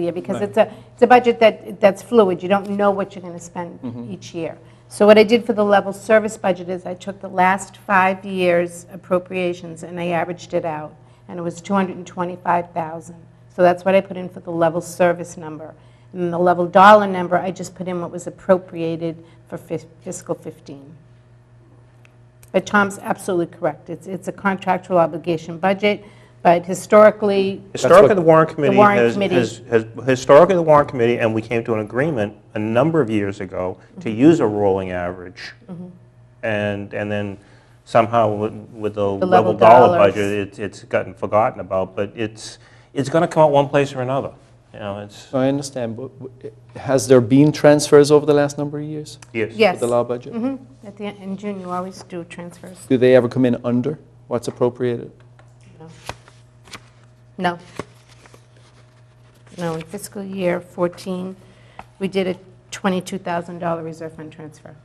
year, because it's a, it's a budget that, that's fluid, you don't know what you're going to spend each year. So what I did for the level service budget is I took the last five years' appropriations and I averaged it out, and it was 225,000. So that's what I put in for the level service number. And the level dollar number, I just put in what was appropriated for fis- fiscal 15. But Tom's absolutely correct. It's, it's a contractual obligation budget, but historically, Historically, what- the warrant committee warrant has, committee. has, has- historically, the warrant committee, and we came to an agreement a number of years ago to use a rolling average. And, and then somehow with- with the level level dollar dollars. budget, it's, it's gotten forgotten about, but it's, it's going to come out one place or another. You know, it's, I understand, but w- has there been transfers over the last number of years? yes. yes. With the law budget? Mhm. At the, in June, you always do transfers. Do they ever come in under what's appropriated? No. No, in fiscal year 14, we did a $22,000 reserve fund transfer.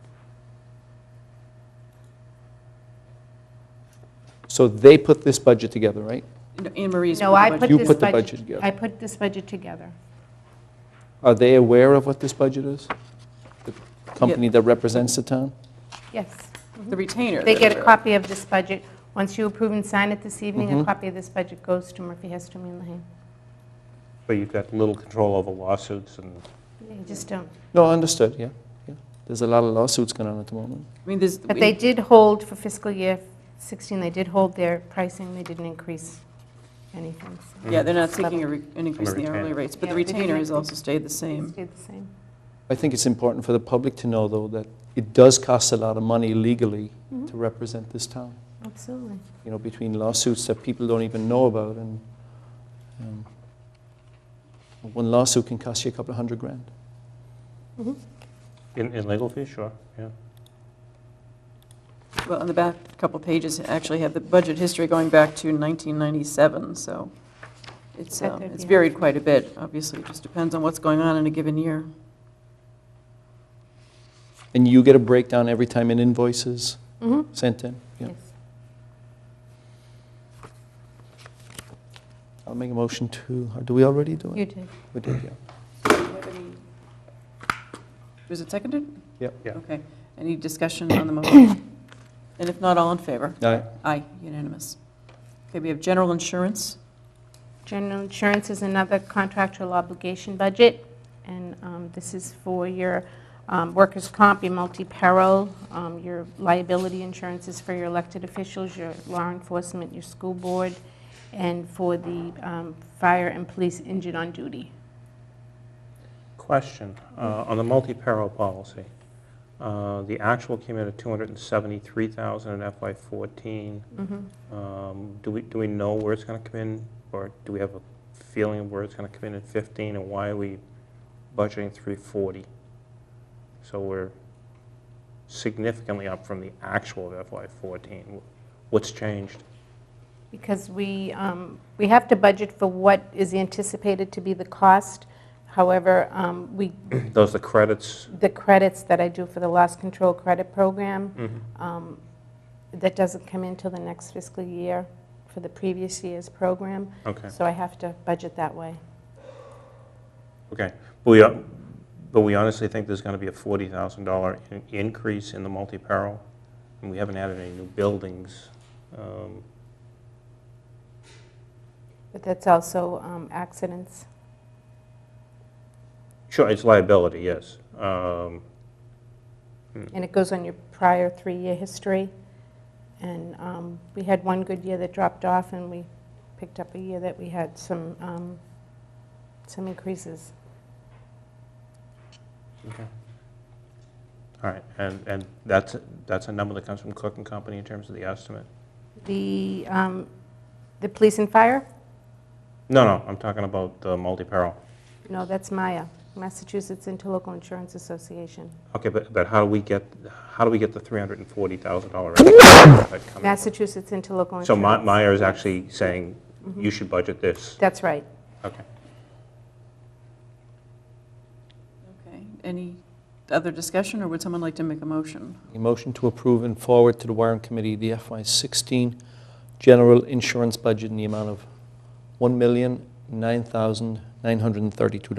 So they put this budget together, right? No, Anne Marie's. No, I put You this put the budget. budget together. I put this budget together. Are they aware of what this budget is? The company that represents the town? Yes. The retainer. They that get a we're- copy of this budget. Once you approve and sign it this evening, a Mm-hmm. copy of this budget goes to Murphy, Heston, and Lehane. But you've got little control over lawsuits and, They just don't. No, understood, yeah, yeah. There's a lot of lawsuits going on at the moment. I mean, there's. But they did hold for fiscal year 16, they did hold their pricing, they didn't increase anything. so Yeah, they're not seeking a re- an increase in the retainer. hourly rates, but the Yeah, they didn't retainer has increase. also stayed the it same. Stayed the same. I think it's important for the public to know, though, that it does cost a lot of money legally to represent this town, Absolutely. you know, between lawsuits that people don't even know about, and um, one lawsuit can cost you a couple of hundred grand. in in legal fees, sure, yeah. Well, on the back, a couple pages actually have the budget history going back to 1997, so it's, That uh, could it's be varied quite a bit, obviously. It just depends on what's going on in a given year. And you get a breakdown every time an invoice is Mm-hmm. sent in? Yeah. Yes. I'll make a motion to, or do we already do it? You did. We did, yeah. Was it seconded? Yep. Yeah. Okay. Any discussion on the motion? And if not, all in favor? All right. Aye, unanimous. Okay, we have general insurance. General insurance is another contractual obligation budget, and um, this is for your um, workers' comp, your multi-peril, um, your liability insurance is for your elected officials, your law enforcement, your school board, and for the um, fire and police injured on duty. Question, uh, on the multi-peril policy, uh, the actual came in at 273,000 in FY '14. Um, Do we, do we know where it's going to come in, or do we have a feeling of where it's going to come in in 15, and why are we budgeting 340? So we're significantly up from the actual of FY '14. What's changed? Because we, um, we have to budget for what is anticipated to be the cost. However, um, we Those are the credits, the credits that I do for the loss control credit program, um, that doesn't come in till the next fiscal year for the previous year's program. okay. So I have to budget that way. Okay, but we, but we honestly think there's gonna be a forty thousand dollar increase in the multi-peril, and we haven't added any new buildings. Um, But that's also um, accidents. Sure, it's liability, yes. Um, And it goes on your prior three-year history. And um, we had one good year that dropped off, and we picked up a year that we had some, um, some increases. okay. All right, and, and that's, that's a number that comes from Cook and Company in terms of the estimate? The, um, the police and fire? No, no, I'm talking about the multi-peril. No, that's MIA, Massachusetts Interlocal Insurance Association. Okay, but, but how do we get, how do we get the three hundred and forty thousand dollar? Massachusetts. Massachusetts Interlocal Insurance. So Ma- Meyer is actually saying, you should budget this, That's right. okay. Okay, any other discussion, or would someone like to make a motion? A motion to approve and forward to the warrant committee the FY16 general insurance budget in the amount of one million nine thousand $932.